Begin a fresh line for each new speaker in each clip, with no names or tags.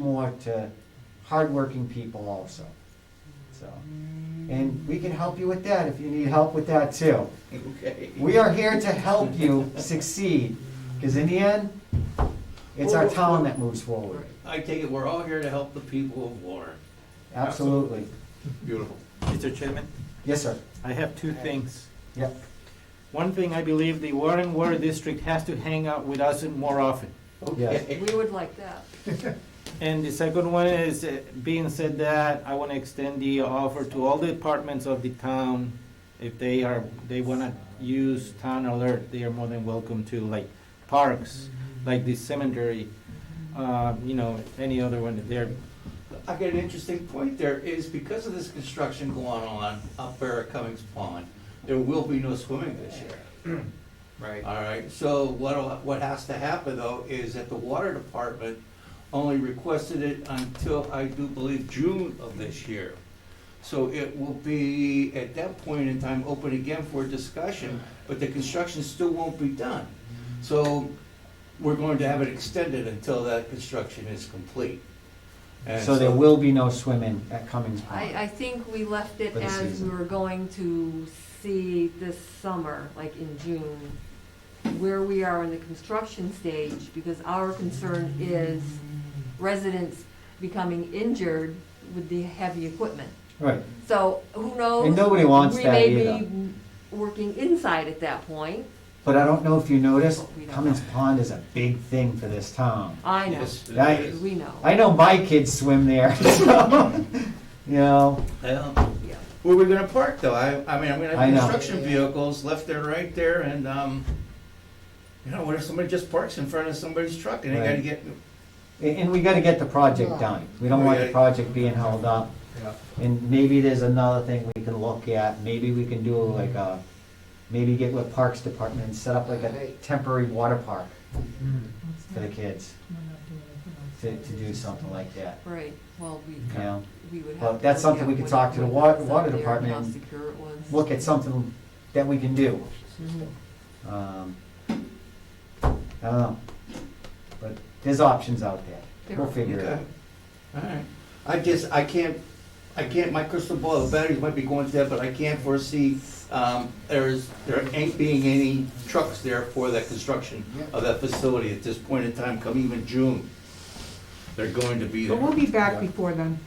more to hardworking people also. So, and we can help you with that if you need help with that too.
Okay.
We are here to help you succeed, because in the end, it's our town that moves forward.
I take it we're all here to help the people of Warren.
Absolutely.
Beautiful.
Mr. Chairman,
Yes, sir.
I have two things.
Yep.
One thing, I believe the Warren Water District has to hang out with us more often.
Yes.
Okay.
We would like that.
And the second one is, uh, being said that, I want to extend the offer to all the departments of the town. If they are, they want to use town alert, they are more than welcome to, like parks, like the cemetery, uh, you know, any other one that they're,
I got an interesting point there, is because of this construction going on up there at Cummings Pond, there will be no swimming this year.
Right.
All right, so what, what has to happen though is that the water department only requested it until, I do believe, June of this year. So it will be, at that point in time, open again for discussion, but the construction still won't be done. So we're going to have it extended until that construction is complete. And
So there will be no swimming at Cummings Pond.
I, I think we left it
For the
as we
season.
were going to see this summer, like in June, where we are in the construction stage, because our concern is residents becoming injured with the heavy equipment.
Right.
So who knows?
And nobody wants that
We may
either.
be working inside at that point.
But I don't know if you noticed, Cummings Pond is a big thing for this town.
I know,
Yes, it
That-
is.
we know.
I know my kids swim there, so, you know,
Yeah.
Yeah.
Where we gonna park though? I, I mean, I'm gonna
I
have
know.
construction vehicles left there, right there, and, um, you know, what if somebody just parks in front of somebody's truck and they gotta
Right.
get,
and and we gotta get the project done. We don't want the project being held up.
Yeah.
And maybe there's another thing we can look at, maybe we can do like a, maybe get with Parks Department and set up like a temporary water park for the kids. To, to do something like that,
Right, well, we, uh,
you know?
we would have.
Well,
to
that's
look
something
at
we could
when
talk
it
to the
was
wa-
up
water
there and How
department and
secure it was.
Look at something that we can do.
Mhm.
Um, I don't know, but there's options out there, we'll
There-
figure it out.
okay. Alright, I just, I can't, I can't, my crystal ball, the batteries might be going dead, but I can't foresee, um, there's, there ain't being any trucks there for that construction of that facility at this point in time, come even June. They're going to be there.
But we'll be back before then.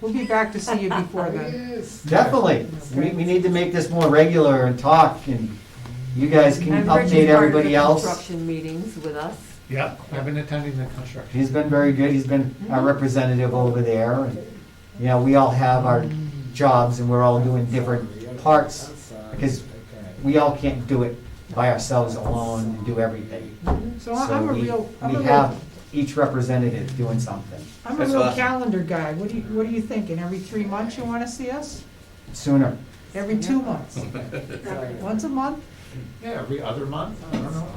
We'll be back to see you before then.
Definitely, we, we need to make this more regular and talk, and you guys can update everybody
And Rich is part of the
else.
construction meetings with us.
Yeah, I've been attending the construction.
He's been very good, he's been our representative over there, and, you know, we all have our jobs, and we're all doing different parts, because we all can't do it by ourselves alone and do everything.
So I- I'm a
we-
real, I'm
We
a real,
have each representative doing something,
I'm a
That's
real
awesome.
calendar guy. What do you, what are you thinking? Every three months you wanna see us?
sooner,
Every two months? Once a month?
Yeah, every other month, I don't know,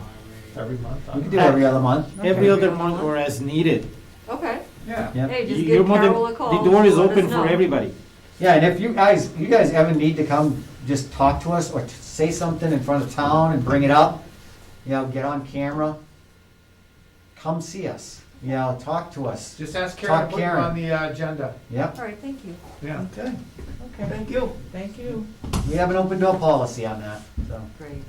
every month. I
we
don't
can do
know.
every other month,
every other month or as needed.
Okay,
Yeah.
yeah.
hey, just
You're
give
more than-
Carol a call.
The door is
let us
open for
know.
everybody.
Yeah, and if you guys, you guys ever need to come, just talk to us or t- say something in front of town and bring it up, you know, get on camera, come see us, you know, talk to us.
Just ask Karen to
Talk
put you
Karen.
on the uh, agenda,
Yep,
All right, thank you.
yeah.
Okay,
Okay,
thank you.
thank you.
we have an open door policy on that, so.
Great,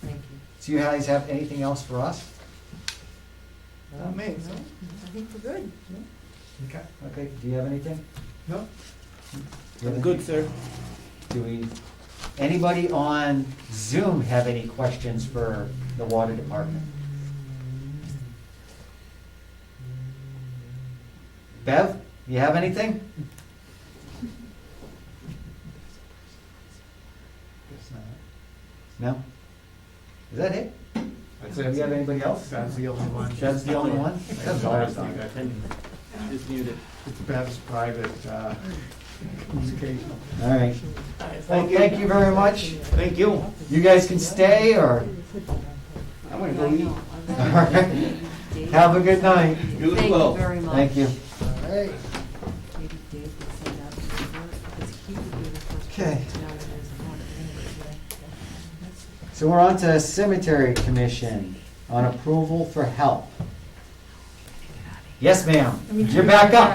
thank you.
Do you guys have anything else for us?
Amazing.
I think we're good.
Okay.
Okay, do you have anything?
No?
Do you have
Good, sir.
anything? Do we, anybody on Zoom have any questions for the water department? Bev, you have anything?
Guess not.
No? Is that it?
That's
Do we have
it.
anybody else?
That's the only one.
That's the only one? That's all I've done.
Just muted.
It's Bev's private, uh, communication.
All right. Well, thank you very much.
Thank you.
You guys can stay or,
I'm gonna
Yeah, I
go eat.
know.
all
I'm not-
right. Have a good night.
You as
Thank
well.
you very much.
Thank you.
Maybe Dave could send out the report, because he would be the first
Okay.
person to know when there's a water anyway.
So we're on to Cemetery Commission on approval for help.
Get out of here.
Yes, ma'am.
I mean,
You're back up.